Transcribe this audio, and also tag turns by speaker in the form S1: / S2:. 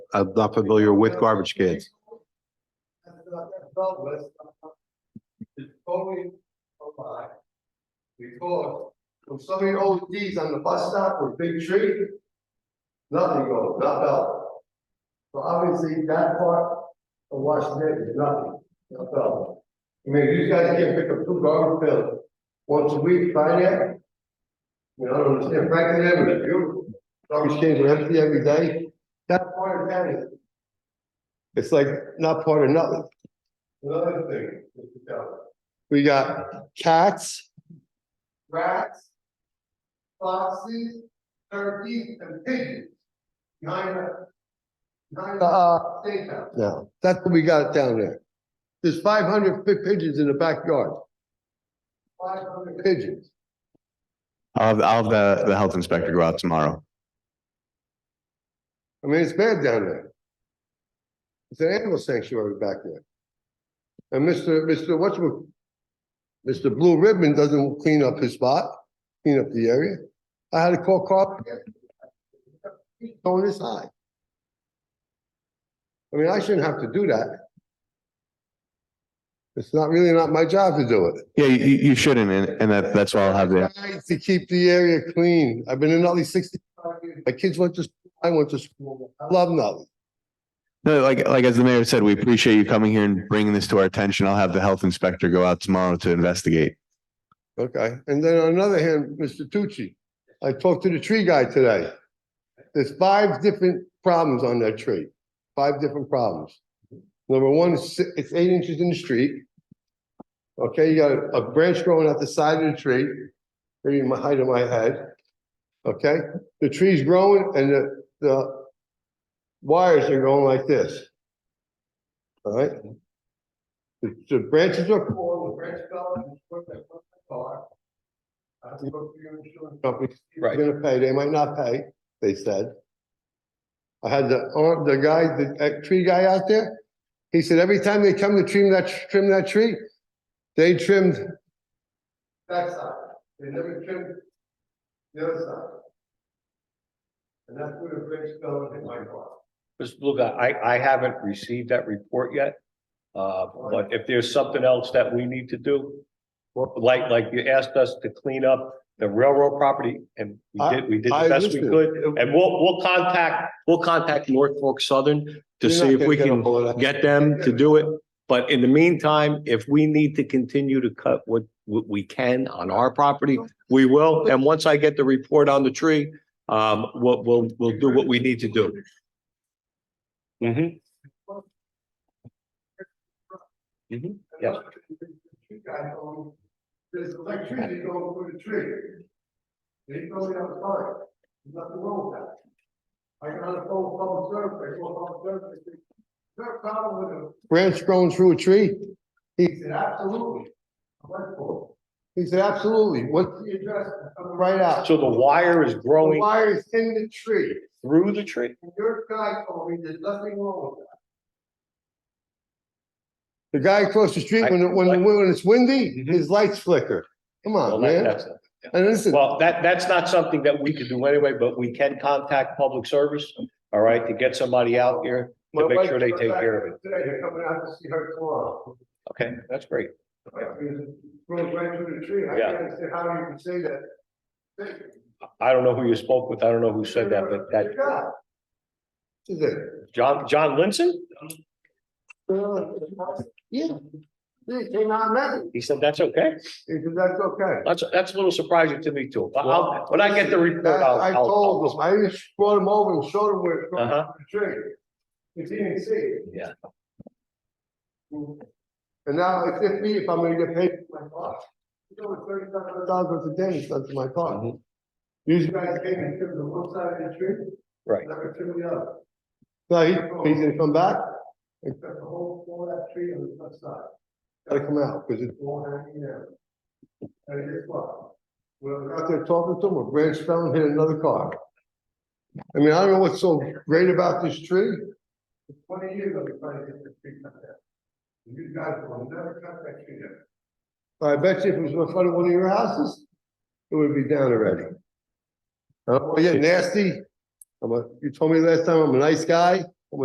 S1: I'm not familiar with garbage cans.
S2: It's totally a lie. Because when somebody holds these on the bus stop with big tree, nothing goes, not out. So obviously that part of Washington is nothing, not out. I mean, you guys can pick up two garbage bills once a week, try that. You know, I don't understand, frankly, that was beautiful. Garbage cans are empty every day. That part of that is it's like not part of nothing. Another thing, Mr. Kelly. We got cats. Rats. Foxes, turkeys, and pigeons. Behind the. Behind the, uh, steakhouse. Now, that's what we got down there. There's five hundred pigeons in the backyard. Five hundred pigeons.
S3: I'll, have- I'll have the, the health inspector go out tomorrow.
S2: I mean, it's bad down there. It's an animal sanctuary back there. And Mr. Mr. What's with? Mr. Blue Ribbon doesn't clean up his spot, clean up the area. I had to call Carl. He's on his side. I mean, I shouldn't have to do that. It's not really not my job to do it.
S3: Yeah, you, you you shouldn't, and, and that, that's why I'll have the,
S2: I like To keep the area clean. I've been in Nutley sixty-five years. My kids went to, school. I went to school. I love Nutley.
S3: no, like, like as the mayor said, we appreciate you coming here and bringing this to our attention. I'll have the health inspector go out tomorrow to investigate.
S2: Okay, and then on the other hand, Mr. Tucci, I talked to the tree guy today. There's five different problems on that tree, five different problems. Number one, it's si- it's eight inches in the street. Okay, you got a- a branch growing out the side of the tree, maybe my height of my head. Okay, the tree's growing and the, the wires are going like this. All right? The, the branches are falling, the branch fell, and it's put that front car. I have to go through your insurance company. You're
S4: Right.
S2: Gonna pay, they might not pay, they said. I had the, arm- the guy, the uh, tree guy out there, he said every time they come to trim that, trim that tree, they trimmed. That side, they never trimmed the other side. And that's where the branch fell and hit my car.
S4: Mr. Blue, I, I haven't received that report yet. Uh, but if there's something else that we need to do, like, like you asked us to clean up the railroad property and we did, we did
S2: I
S4: the best we
S2: listened.
S4: could. And we'll, we'll contact, we'll contact Norfolk Southern to
S2: You're
S4: see
S2: not
S4: if
S2: gonna
S4: we
S2: get a
S4: can
S2: hold of that.
S4: get them to do it. But in the meantime, if we need to continue to cut what, what we can on our property, we will. And once I get the report on the tree, um, we'll, we'll, we'll do what we need to do. Mhm. Mhm. Yes.
S2: Guy told me, There's electricity going through the tree. They told me I was fine, there's nothing wrong with that. I got on the phone, with public service, I called public service, I said, "Is there a problem with a branch growing through a tree? He said, absolutely. I went for it. He said, absolutely, what's the address? I'm coming right out.
S4: So the wire is
S2: The
S4: growing
S2: wire is in the tree,
S4: through the tree?
S2: and your guy told me there's nothing wrong with that. The guy across the street, when, it- when, the- when it's windy, his lights flicker. Come
S4: Mm-hmm. Well,
S2: on,
S4: that-
S2: man.
S4: that's-
S2: And listen,
S4: Well, that, that's not something that we could do anyway, but we can contact public service, all right, to get somebody out here
S2: my
S4: to make
S2: wife
S4: sure they
S2: comes
S4: take
S2: back
S4: care of it.
S2: Today, they're coming out to see her tomorrow.
S4: Okay, that's great.
S2: Like, it Goes right through the tree. I
S4: Yeah.
S2: can't understand how you can say that.
S4: I don't know who you spoke with, I don't know who said that, but that,
S2: Your guy. This is it.
S4: John, John Linson?
S2: Yeah. They, they not mad.
S4: He said, that's okay.
S2: He said, that's okay.
S4: That's, that's a little surprising to me too. But I'll, when I get the report, I'll.
S2: I
S4: I'll-
S2: told him, I just brought him over and showed him where it's from,
S4: Uh-huh,
S2: the tree. He didn't see it.
S4: yeah.
S2: And now it's just me if I'm gonna get paid for my car. You know, thirty five hundred dollars worth of damage done to my car.
S4: Mhm.
S2: You guys came and trimmed the one side of the tree.
S4: Right.
S2: Never trimmed the other. No, he, he's gonna come back. He cut the whole, all that tree on the left side. Gotta come out, cause it's all hanging down. And guess what? When I was out there talking to him, a branch fell and hit another car. I mean, I don't know what's so great about this tree. For Twenty years I've been trying to get this tree cut down. You guys will never cut that tree down. I bet you if it was in front of one of your houses, it would be down already. Oh, I don't want to get nasty. I'm a, you told me last time I'm a nice guy.